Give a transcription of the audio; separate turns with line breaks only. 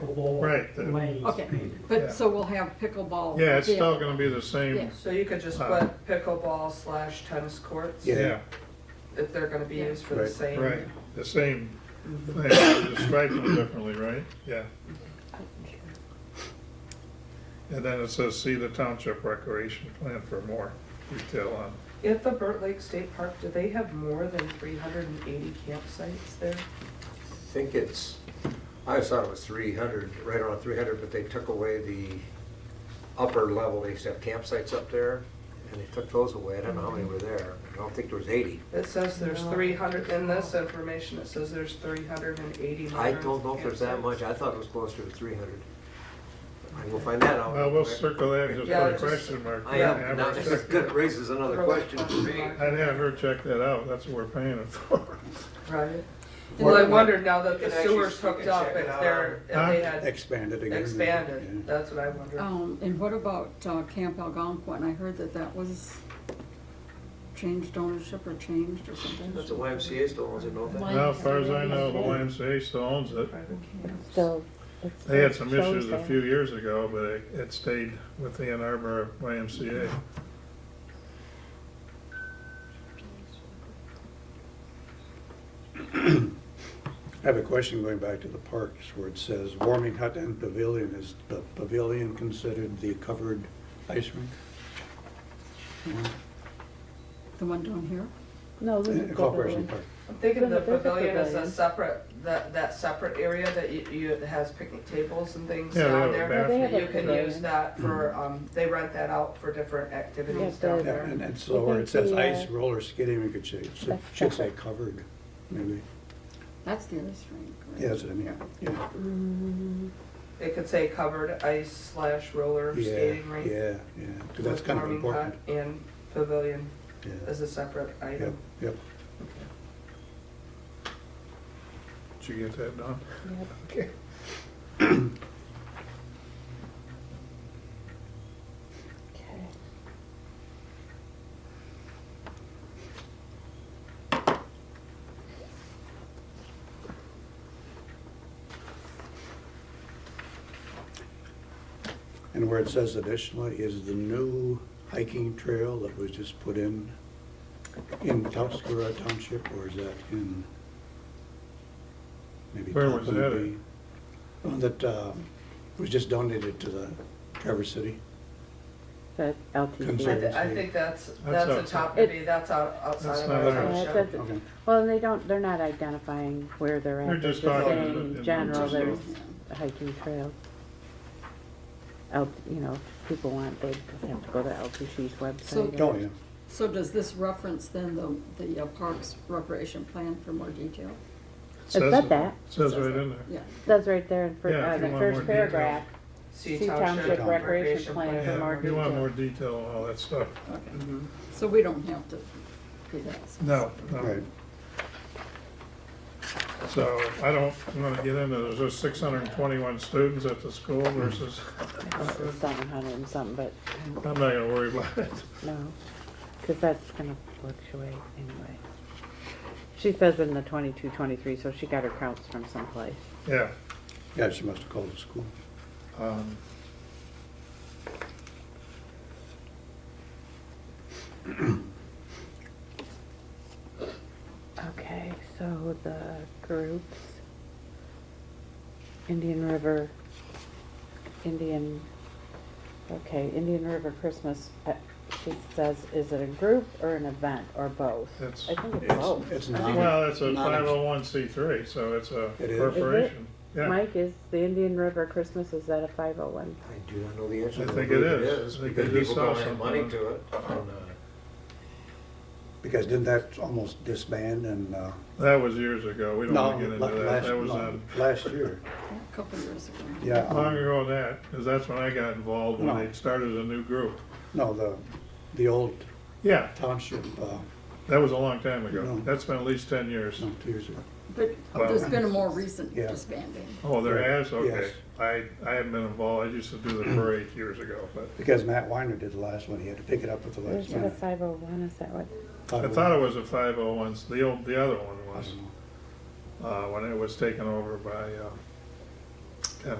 pickleball.
Right, the-
Lanes.
Okay,
Yeah.
but, so we'll have pickleball.
Yeah, it's
there.
still gonna be the same,
Oh, Yeah.
So you could just
Uh,
put pickleball slash tennis courts,
Yeah.
yeah,
if they're gonna be
Yeah.
used for the
Right.
same.
right, the same thing, just stripe them differently, right? Yeah. And then it says, see the township recreation plan for more detail on,
At the Burt Lake State Park, do they have more than three hundred and eighty campsites there?
I think it's, I always thought it was three hundred, right around three hundred, but they took away the upper level, they used to have campsites up there, and they took those away, I don't know how many were there, I don't think there was eighty.
It says there's
No.
three hundred, in this information, it says there's three hundred and eighty.
I don't know if there's that much, I thought it was closer to three hundred. I will find that out.
well, we'll circle that, just
Yeah,
put a
just-
question mark.
Oh, I
there and
am,
have
now
her
this
check-
good raises another question for me.
I'd have her check that out, that's what we're paying it for.
Right. Well, I wondered now that the
You can actually
sewer's
speak and
hooked up,
check
if
it out
they're, if
Huh?
they had
Expanded again.
expanded,
Yeah.
that's what I
Oh.
wondered.
Um, and what about uh, Camp Algonquin? I heard that that was changed ownership or changed or something.
That's what YMCA still owns it, don't they?
Now, as far as I know, the YMCA still owns it,
Private camps.
So. it's-
they had some
shows
issues a
there.
few years ago, but it- it stayed with the Ann Arbor YMCA.
I have a question going back to the parks where it says warming hut and pavilion. Is the pavilion considered the covered ice rink?
The one down here?
No, this is
Uh, Corporation Park.
I'm thinking the
There's a
pavilion is a
pavilion.
separate, that, that separate area that you, you, that has picnic tables and things
Yeah, they have
down
a
there.
bathroom.
They have
You
a
can
pavilion.
use that for, um, they rent that out for different activities
Yeah,
down
Yeah,
there.
and and so where it says ice roller skating, we could say,
That's
should say covered, maybe.
That's the other rink. right?
Yeah, that's what I mean, yeah.
Mm,
It could say covered ice slash roller
Yeah,
skating rink.
yeah, yeah, 'cause that's kind of
with warming hut
important.
And pavilion
Yeah.
as a separate
Yep,
item.
yep.
Did you get that done?
mm. Yep.
Okay.
Okay.
And where it says additionally is the new hiking trail that was just put in, in Tuscara Township, or is that in? maybe
Where was
Tappan would
that at?
be- One that uh, was just donated to the Traverse City.
That
I,
Sure.
LTV.
thi- I think that's,
That's
that's a
outside.
top, maybe that's out,
That's
outside of
not
our
in our-
Yeah,
township.
it doesn't-
Okay.
Well, and they don't, they're not identifying where they're at.
They're just talking about
saying
it.
General,
Just-
there's a hiking trail. Out, you know, if people want, they have to go to LTC's
So-
website.
Oh, yeah.
So does this reference then the, the uh, Parks Recreation Plan for more detail?
It
Says
said
it-
that.
Says right in there.
Yeah.
That's right there in, fir-
Yeah, if
uh,
you
the
want more
first
detail.
paragraph.
See
See Township
Township Recreation
Recreation Plan
Plan. Mm-hmm.
for
Yeah,
more
if you want
detail.
more detail on all that stuff.
So we don't have to do that.
No, no.
Right.
Oh. So I don't, I'm gonna get into, there's just six hundred and twenty-one students at the school versus,
Seven hundred and something, but
I'm not gonna worry about it.
no, because that's gonna fluctuate anyway. She says in the twenty-two, twenty-three, so she got her counts from someplace.
Yeah.
Yeah, she must have called the school.
um,
Okay, so the groups, Indian River, Indian, okay, Indian River Christmas, uh, she says, is it a group or an event or both?
It's-
I think it's
It's-
both.
It's not.
Well, it's a
not-
five oh one C three, so it's a
It is.
corporation. Yeah,
Mike, is the Indian River Christmas, is that a five oh one?
I do not know the answer.
I
but
think
believe
it is. I think
Because
they just saw
people donate money
something.
to it. and, uh,
Because didn't that almost disband and, uh,
that was years ago. We don't
no,
wanna get
la-
into that.
last,
That was
no,
on,
last year,
A Couple years ago.
yeah. um,
long ago than that, cause that's when I got involved, when
No.
they started a new group.
No, the, the old
Yeah,
township, uh,
that was a long time ago.
No.
That's been at least ten years.
no, two years ago.
But
Well-
there's been a more recent
Yeah.
disbanding.
Oh, there
Right.
is, okay.
Yes.
I, I haven't been involved, I used to do the parade years ago, but
Because Matt Weiner did the last one, he had to pick it up at the last
Is it a
minute.
five oh one, is that what?
I thought it was a five oh one, the old, the other one
I
was,
don't know.
uh, when it was taken over by, uh,